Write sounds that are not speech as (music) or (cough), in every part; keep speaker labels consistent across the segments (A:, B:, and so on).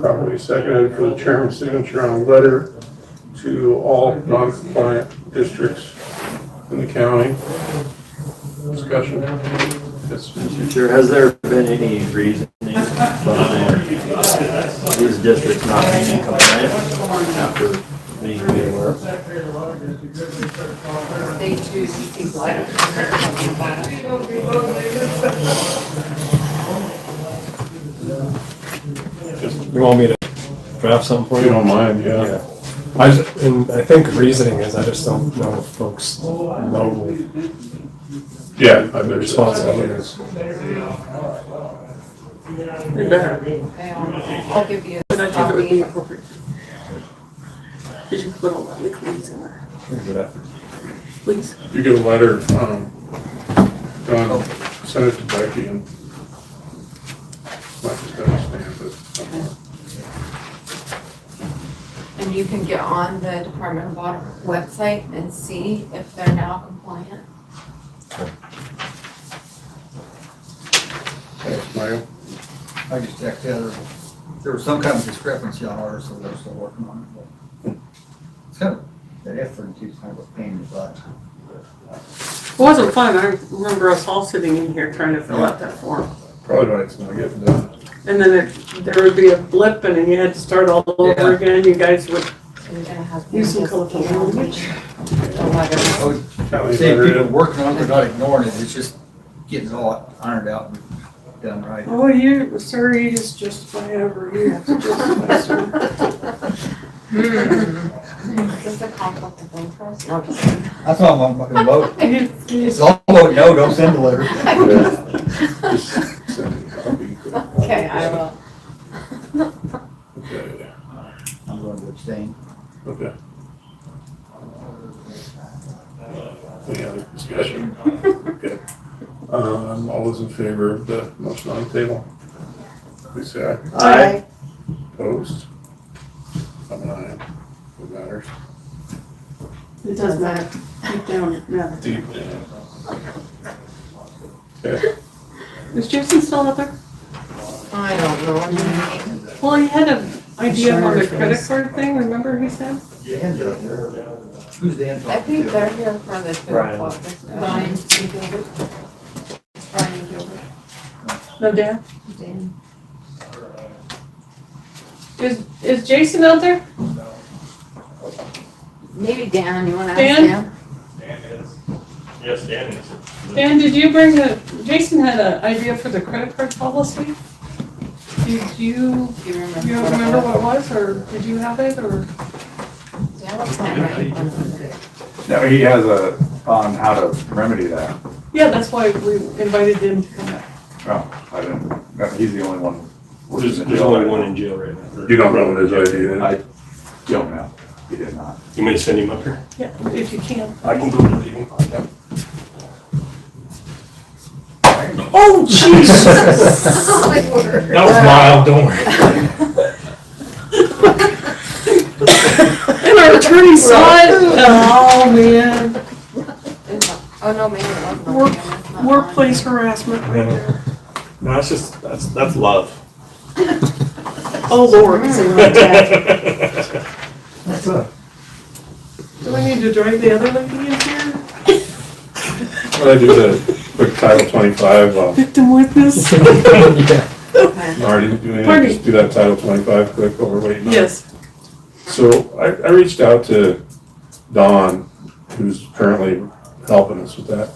A: Properly seconded for the chairman's signature on a letter to all non-compliant districts in the county. Discussion. Yes.
B: Mr. Chair, has there been any reasoning behind these districts not being compliant after being made aware?
C: They choose people like.
D: You want me to draft something for
A: If
D: you?
A: you don't mind, yeah.
D: I, just- and I think the reasoning is I just don't know if folks know
A: Yeah, I
D: the
A: bet
D: responsibility is.
A: (laughs)
C: I'll give you a copy.
E: Did you put all that liquids in there? Please.
A: You get a letter, um, done, send it to Becky and. Might just understand it.
C: And you can get on the Department of Water website and see if they're now compliant.
A: Thanks, Mayo.
F: I just checked the other, there was some kind of discrepancy on ours, so they're still working on it. but It's kind of, that effort is kind of a pain in the butt.
E: It wasn't fun. I remember us all sitting in here trying to fill out that form.
A: Probably why it's not getting done.
E: And then it, there would be a blip and then you had to start all over
F: Yeah.
E: again. You guys would,
C: You're gonna have. to
E: Use some
C: just
E: colorful
C: email me
E: language.
C: the letter.
F: I would
A: County
F: say people
A: letter,
F: working on it, they're not ignoring it, it's just getting it all ironed out and done right.
E: oh, you, sir, you just justify every, you have to justify certain
C: Is this a conflict of interest? Hmm. No, I'm just kidding.
F: I thought I'm gonna vote,
E: You- you-
F: it's all vote no, don't send
C: (laughs)
F: the letter.
A: just send a copy.
C: Okay, I will.
E: (laughs)
A: Okay,
F: I'm going to abstain.
A: okay. Any other discussion? Okay. Um, all those in favor of the motion on the table? Please say aye.
B: Aye.
A: Opposed? I'm an aye. What matters?
E: It does matter. Deep down, it matters.
A: Deep. Okay,
E: Is Jason still out there?
C: I don't know. I'm gonna make-
E: Well, he had an idea on the
C: Sure,
E: credit
C: yes.
E: card thing, remember he said?
F: Dan's up there. Who's Dan
C: I
F: talking
C: think
F: to?
C: they're here for the two
B: Brian.
C: o'clock discussion. Brian Gilbert. Brian Gilbert.
E: No, Dan?
C: Dan.
E: Is, is Jason out there?
C: Maybe Dan, you wanna ask
E: Dan?
C: him?
G: Yes, Dan is.
E: Dan, did you bring the, Jason had an idea for the credit card policy? Did you,
C: Do you remember?
E: you
C: what it
E: remember
C: was?
E: what it was, or did you have it, or?
C: Dan was not right in
G: (laughs)
C: front (laughs) of me.
H: No, he has a, on how to remedy that.
E: Yeah, that's why we invited him to come back.
H: Oh, I didn't, no, he's the only one.
G: There's, there's only one in jail right now.
A: you don't know what his idea is?
H: I don't know. He did not.
G: You may send him up here.
E: Yeah, if you can.
G: I can go to him.
E: Oh, Jesus!
G: (laughs) That was mild, don't worry.
E: And (laughs) our attorney saw it, oh, man,
C: Oh, no, maybe it wasn't.
E: Work-
C: Dan, that's not mine.
E: workplace harassment right there.
G: No, that's just, that's, that's love.
E: Oh, Lord, it's in my tab.
G: (laughs)
E: Do we need to drag the other lady in here?
A: When I do the quick Title 25, I'll
E: Victim witness?
A: already do it,
E: Pardon me.
A: just do that Title 25 quick overweight. number.
E: (laughs) Yes,
A: So I, I reached out to Don, who's currently helping us with that,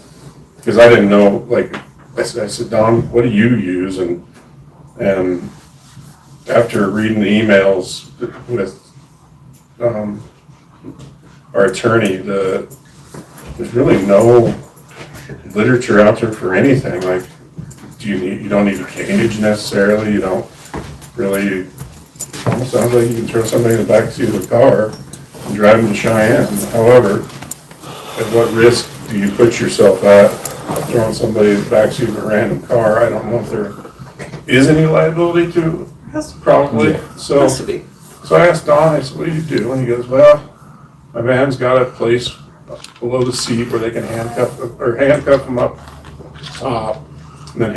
A: because I didn't know, like, I said, I said, Don, what do you use? And, and after reading the emails with, um, our attorney, the, there's really no literature out there for anything, like, do you need, you don't need a cage necessarily, you don't really Almost sounds like you can throw somebody in the backseat of a car and drive them to Cheyenne. However, at what risk do you put yourself at throwing somebody in the backseat of a random car? I don't know if there is any liability to, it, probably. So,
E: has to
A: so
E: be.
A: I asked Don, I said, what do you do? And he goes, well, my van's got a place below the seat where they can handcuff, or handcuff them up top.